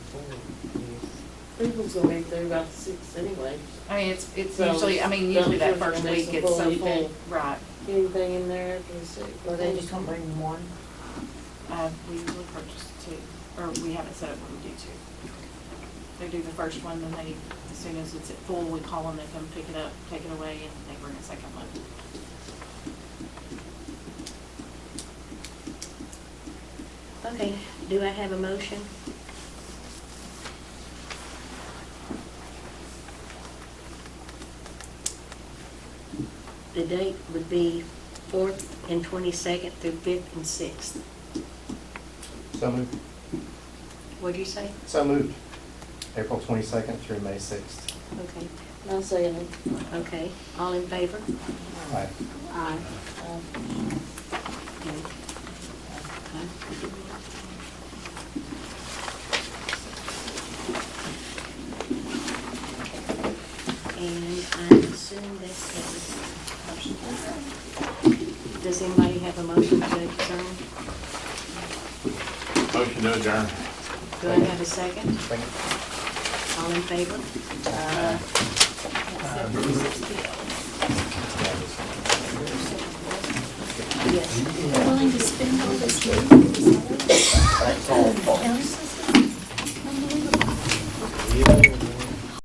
people's gonna be through about the sixth anyway. I mean, it's, it's So, usually, I mean, don't usually that you first think it's week a it's so full full, event? right. Anything in there after the sixth? Well, they just gonna bring them one. Uh, we usually purchase two, or we haven't set up when we do two. They do the first one, then they, as soon as it's at full, we call them, they come pick it up, take it away, and they bring a second one. Okay, do I have a motion? The date would be fourth and twenty-second through fifth and sixth. So moved. What'd you say? So moved. April 22nd through May 6th. Okay, I'll say it. okay, all in favor? Aye. Aye. Um, And I assume that's everything. Does anybody have a motion to adjourn? Motion to adjourn. Do I have a second? Thank you. All in favor? Yes. willing to spend all this money for this other That's all. health system? Unbelievable. Yeah.